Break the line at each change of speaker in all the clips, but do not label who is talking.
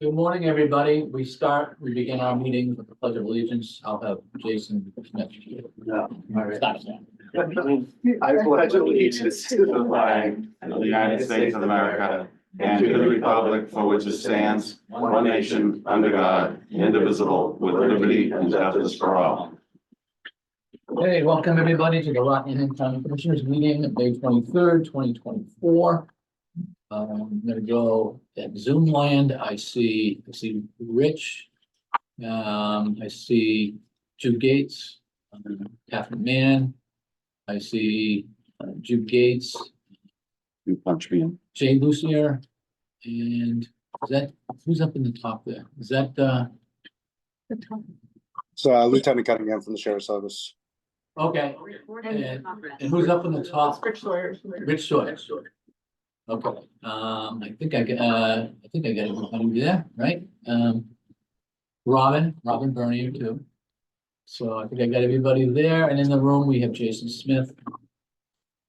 Good morning, everybody. We start, we begin our meeting with the pledge of allegiance. I'll have Jason next. Stop that.
I pledge allegiance to the flag of the United States of America and to the republic for which it stands, one nation, under God, indivisible, with liberty and justice for all.
Hey, welcome everybody to the Rockingham County Commissioners Meeting, May twenty-third, twenty twenty-four. Um, I'm gonna go at Zoom land. I see, I see Rich. Um, I see Jude Gates, um, Catherine Mann. I see uh, Jude Gates,
You punch me in.
Jay Lucier. And is that, who's up in the top there? Is that, uh,
So uh, Lieutenant Cunningham from the Sheriff's Service.
okay, And- and who's up in the top?
Rich Sawyer.
Rich Sawyer. Okay, um, I think I, get- uh, I think I got everybody there, right? Um. Robin, Robin Bernier too. So I think I got everybody there, and in the room, we have Jason Smith.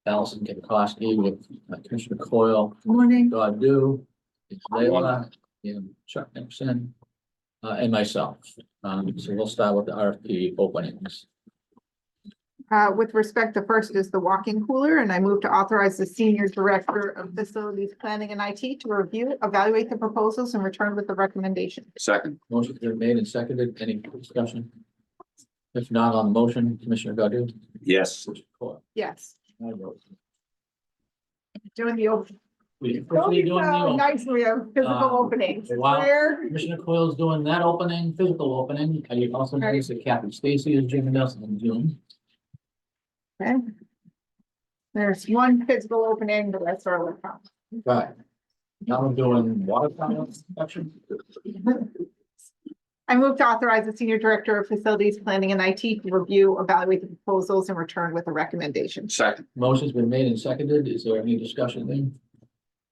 Allison Kikoski with uh, Commissioner Coyle,
Morning.
God do, it's Leila, and Chuck Nixon. Uh, and myself, um, so we'll start with the RFP openings.
Uh, with respect, the first is the walk-in cooler, and I move to authorize the senior director of facilities planning and IT to review, evaluate the proposals and return with the recommendation.
Second.
Motion's been made and seconded. Any discussion? If not on the motion, Commissioner Godu?
Yes.
Yes,
I vote.
doing the open.
We
Don't
quickly
be
doing
so
the,
nice, we have physical
Um,
openings.
wow.
Where?
Commissioner Coyle's doing that opening, physical opening. Can you also notice that Captain Stacy is joining us in Zoom?
Okay. There's one physical opening, the rest are electronic.
Right. Now we're doing water tower inspection.
I move to authorize the senior director of facilities planning and IT to review, evaluate the proposals and return with a recommendation.
Second.
Motion's been made and seconded. Is there any discussion there?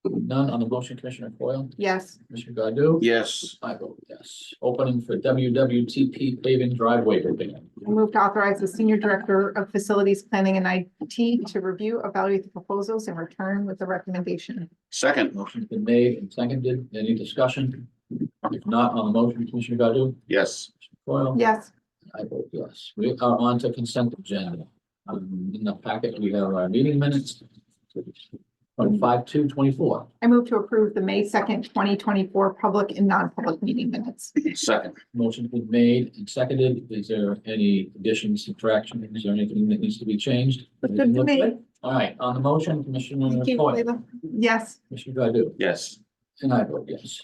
None on the motion, Commissioner Coyle,
Yes,
Commissioner Godu?
Yes.
I vote yes. Opening for WWTP paving driveway opening.
I move to authorize the senior director of facilities planning and IT to review, evaluate the proposals and return with a recommendation.
Second.
Motion's been made and seconded. Any discussion? If not on the motion, Commissioner Godu?
Yes.
Coyle?
Yes,
I vote yes. We are on to consent agenda. Um, in the packet, we have our meeting minutes. From five to twenty-four.
I move to approve the May second, twenty twenty-four public and non-public meeting minutes.
Second.
Motion's been made and seconded. Is there any additions, subtraction? Is there anything that needs to be changed?
Looks good to me.
All right, on the motion, Commissioner
Thank you,
Foil,
Leila. Yes,
Commissioner Godu,
Yes.
and I vote yes.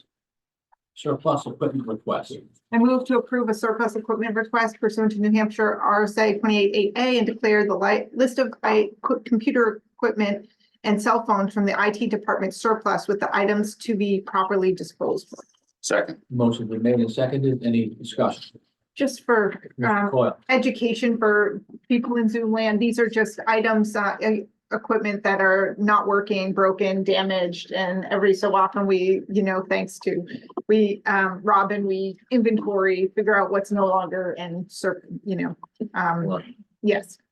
Surplus equipment request.
I move to approve a surplus equipment request pursuant to New Hampshire RSA twenty-eight eight A and declare the light, list of I, co- computer equipment and cell phones from the IT department surplus with the items to be properly disposed. of.
Second.
Motion's been made and seconded. Any discussion?
Just for,
Commissioner
um,
Coyle,
education for people in Zoom land. These are just items, uh, e- equipment that are not working, broken, damaged, and every so often we, you know, thanks to we, um, Robin, we inventory, figure out what's no longer and cer- you know, um, yes.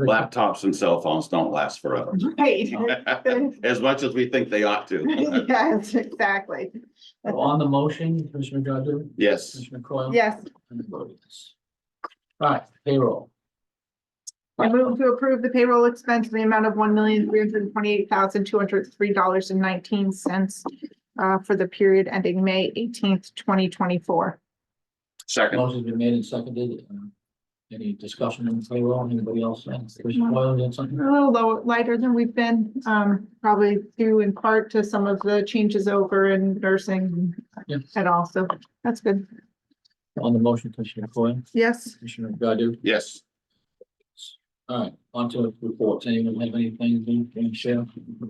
Laptops and cell phones don't last forever.
Right.
As much as we think they ought to.
Yes, exactly.
On the motion, Commissioner Godu,
Yes.
Commissioner Coyle.
Yes.
And I vote yes. All right, payroll.
I move to approve the payroll expense in the amount of one million, three hundred and twenty-eight thousand, two hundred and three dollars and nineteen cents uh, for the period ending May eighteenth, twenty twenty-four.
Second.
Motion's been made and seconded. Um, Any discussion on payroll? Anybody else? Commissioner
No.
Foil, you had something?
A little low, lighter than we've been, um, probably due in part to some of the changes over in nursing
Yeah.
at all, so that's good.
On the motion, Commissioner Coyle,
Yes,
Commissioner Godu.
Yes.
All right, on to reports. Anyone have anything they can share?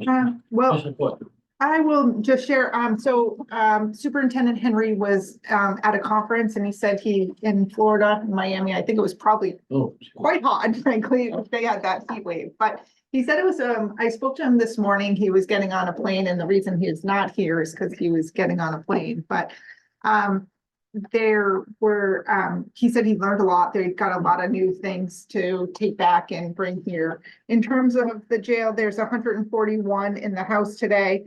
uh, well,
Commissioner Coyle,
I will just share, um, so, um, Superintendent Henry was, um, at a conference and he said he, in Florida, Miami, I think it was probably
oh.
quite hot, frankly, if they had that heat wave, but he said it was, um, I spoke to him this morning, he was getting on a plane, and the reason he is not here is because he was getting on a plane, but um, there were, um, he said he learned a lot, they've got a lot of new things to take back and bring here. In terms of the jail, there's hundred and forty-one in the house today,